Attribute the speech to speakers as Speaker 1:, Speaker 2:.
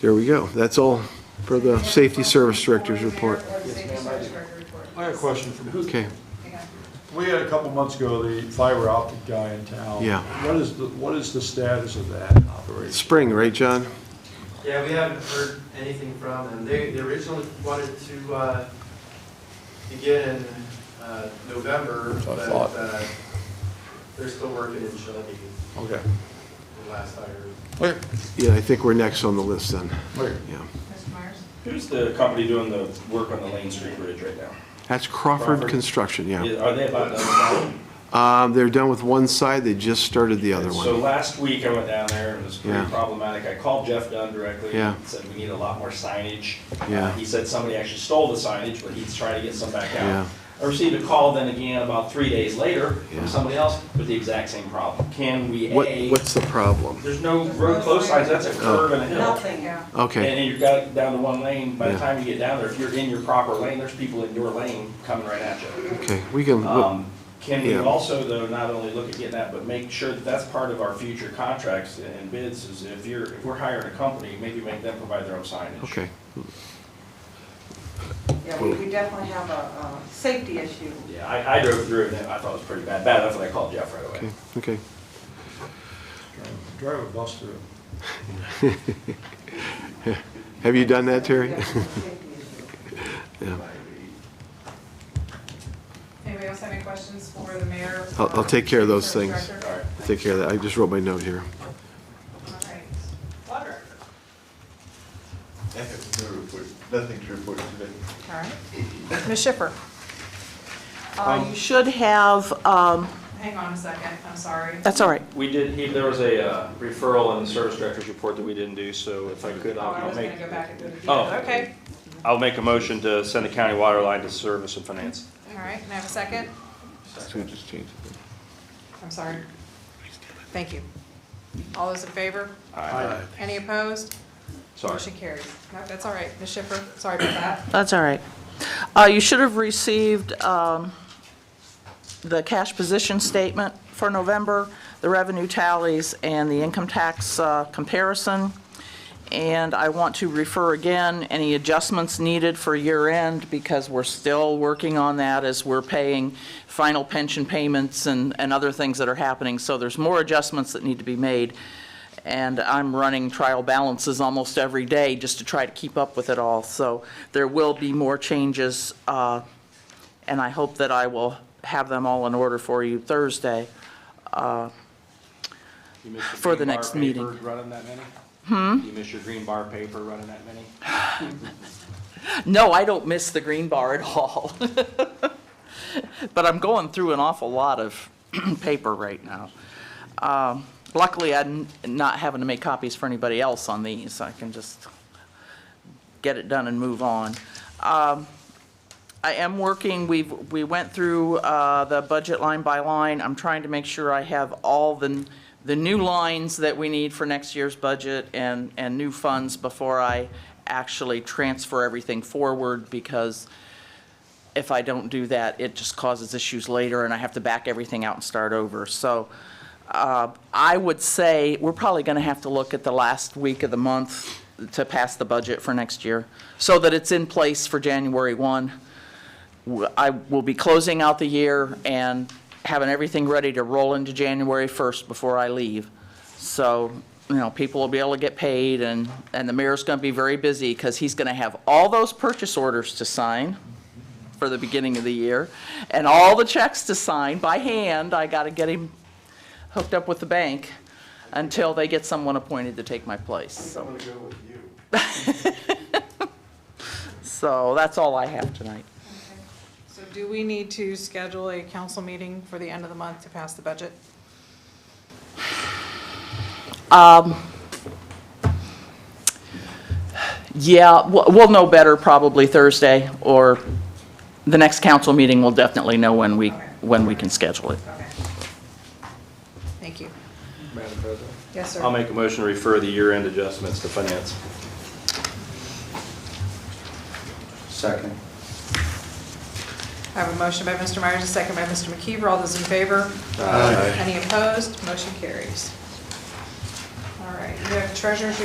Speaker 1: There we go. That's all for the Safety Service Director's report.
Speaker 2: I have a question for you.
Speaker 1: Okay,
Speaker 2: We had a couple months ago, the fiber optic guy in town.
Speaker 1: Yeah.
Speaker 2: What is, the what is the status of that operation?
Speaker 1: spring, right, John?
Speaker 3: Yeah, we haven't heard anything from them. They, they originally wanted to, uh, begin in, uh, November,
Speaker 2: That's what I
Speaker 3: but,
Speaker 2: thought.
Speaker 3: uh, they're still working in Shelby,
Speaker 2: Okay.
Speaker 3: the last I heard.
Speaker 2: Okay.
Speaker 1: Yeah, I think we're next on the list then. Yeah.
Speaker 4: Mr. Myers?
Speaker 5: Who's the company doing the work on the Lane Street Bridge right now?
Speaker 1: That's Crawford
Speaker 5: Crawford.
Speaker 1: Construction, yeah.
Speaker 5: Is- Are they about done with
Speaker 1: Um, They're done with one side, they just started the
Speaker 5: that
Speaker 1: other
Speaker 5: one? So
Speaker 1: one.
Speaker 5: last week I went down there and it was pretty
Speaker 1: Yeah.
Speaker 5: problematic. I called Jeff Dunn directly.
Speaker 1: Yeah.
Speaker 5: and Said we need a lot more signage.
Speaker 1: Yeah.
Speaker 5: Uh, He said somebody actually stole the signage, but he's trying to get some back
Speaker 1: Yeah.
Speaker 5: out. I received a call then again about three days later
Speaker 1: Yeah.
Speaker 5: from somebody else with the exact same problem. Can we,
Speaker 1: What,
Speaker 5: A,
Speaker 1: what's the problem?
Speaker 5: there's no road close signs, that's a curve and a hill.
Speaker 4: yeah.
Speaker 5: And
Speaker 1: Okay,
Speaker 5: then you've got it down to one lane, by
Speaker 1: Yeah.
Speaker 5: the time you get down there, if you're in your proper lane, there's people in your lane coming right at you.
Speaker 1: okay, we can,
Speaker 5: Um, Can we
Speaker 1: Yeah.
Speaker 5: also, though, not only look at getting that, but make sure that that's part of our future contracts and bids, is if you're, if we're hiring a company, maybe make them provide their own signage.
Speaker 1: okay,
Speaker 4: Yeah, we we definitely have a, a safety issue.
Speaker 5: Yeah, I, I drove through it, and I thought it was pretty bad, bad enough that I called Jeff right
Speaker 1: okay,
Speaker 5: away.
Speaker 1: okay.
Speaker 2: Drive a bus through.
Speaker 1: Have you done that, Terry?
Speaker 4: Definitely a safety issue.
Speaker 1: Yeah.
Speaker 6: Anybody else have any questions for the mayor?
Speaker 1: I'll- I'll take care of those
Speaker 6: Service
Speaker 1: things.
Speaker 6: director?
Speaker 5: All right.
Speaker 1: Take care of that, I just wrote my note here.
Speaker 6: All right. Water.
Speaker 7: Nothing to report today.
Speaker 6: All right. Ms. Schiffer?
Speaker 7: Um,
Speaker 6: Um,
Speaker 8: Uh, You should have, um,
Speaker 6: Hang on a second, I'm sorry.
Speaker 8: that's all right.
Speaker 5: We did, he- there was a uh, referral in the service director's report that we didn't do, so if I could,
Speaker 6: Oh,
Speaker 5: I'll
Speaker 6: I
Speaker 5: I'll
Speaker 6: was
Speaker 5: make,
Speaker 6: gonna go back and do it again.
Speaker 5: Oh.
Speaker 6: Okay,
Speaker 5: I'll make a motion to send the county water line to service and finance.
Speaker 6: all right, can I have a second?
Speaker 7: So we just changed it.
Speaker 6: I'm sorry. Thank you. All those in favor?
Speaker 5: Aye.
Speaker 6: Any opposed?
Speaker 5: Sorry.
Speaker 6: Motion carries. No, that's all right, Ms. Schiffer, sorry about that.
Speaker 8: That's all right. Uh, You should have received um, the cash position statement for November, the revenue tallies, and the income tax uh, comparison. And I want to refer again, any adjustments needed for year end, because we're still working on that as we're paying final pension payments and, and other things that are happening. So there's more adjustments that need to be made. And I'm running trial balances almost every day just to try to keep up with it all. So there will be more changes, uh, and I hope that I will have them all in order for you Thursday.
Speaker 5: You miss your
Speaker 8: For the
Speaker 5: green bar
Speaker 8: next
Speaker 5: paper
Speaker 8: meeting.
Speaker 5: Running that many? Hmm? You miss your green bar paper running that many?
Speaker 8: No, I don't miss the green bar at all. But I'm going through an awful lot of paper right now. Um, Luckily, I'm not having to make copies for anybody else on these. I can just get it done and move on. Um, I am working, we've, we went through uh, the budget line by line. I'm trying to make sure I have all the, the new lines that we need for next year's budget and, and new funds before I actually transfer everything forward because if I don't do that, it just causes issues later and I have to back everything out and start over. So uh, I would say we're probably going to have to look at the last week of the month to pass the budget for next year so that it's in place for January 1. W- I will be closing out the year and having everything ready to roll into January 1st before I leave. So, you know, people will be able to get paid and, and the mayor's going to be very busy because he's going to have all those purchase orders to sign for the beginning of the year, and all the checks to sign by hand. I got to get him hooked up with the bank until they get someone appointed to take my place, so.
Speaker 3: I'm gonna go with you.
Speaker 8: So that's all I have tonight.
Speaker 6: So do we need to schedule a council meeting for the end of the month to pass the budget?
Speaker 8: Yeah, we'll, we'll know better probably Thursday, or the next council meeting, we'll definitely know when we, when we can schedule it.
Speaker 6: Okay. Thank you.
Speaker 5: Madam President?
Speaker 6: Yes, sir.
Speaker 5: I'll make a motion to refer the year-end adjustments to finance.
Speaker 7: Second.
Speaker 6: I have a motion by Mr. Myers, a second by Mr. McKeever. All those in favor? Any opposed? Motion carries. All right, you have treasurer's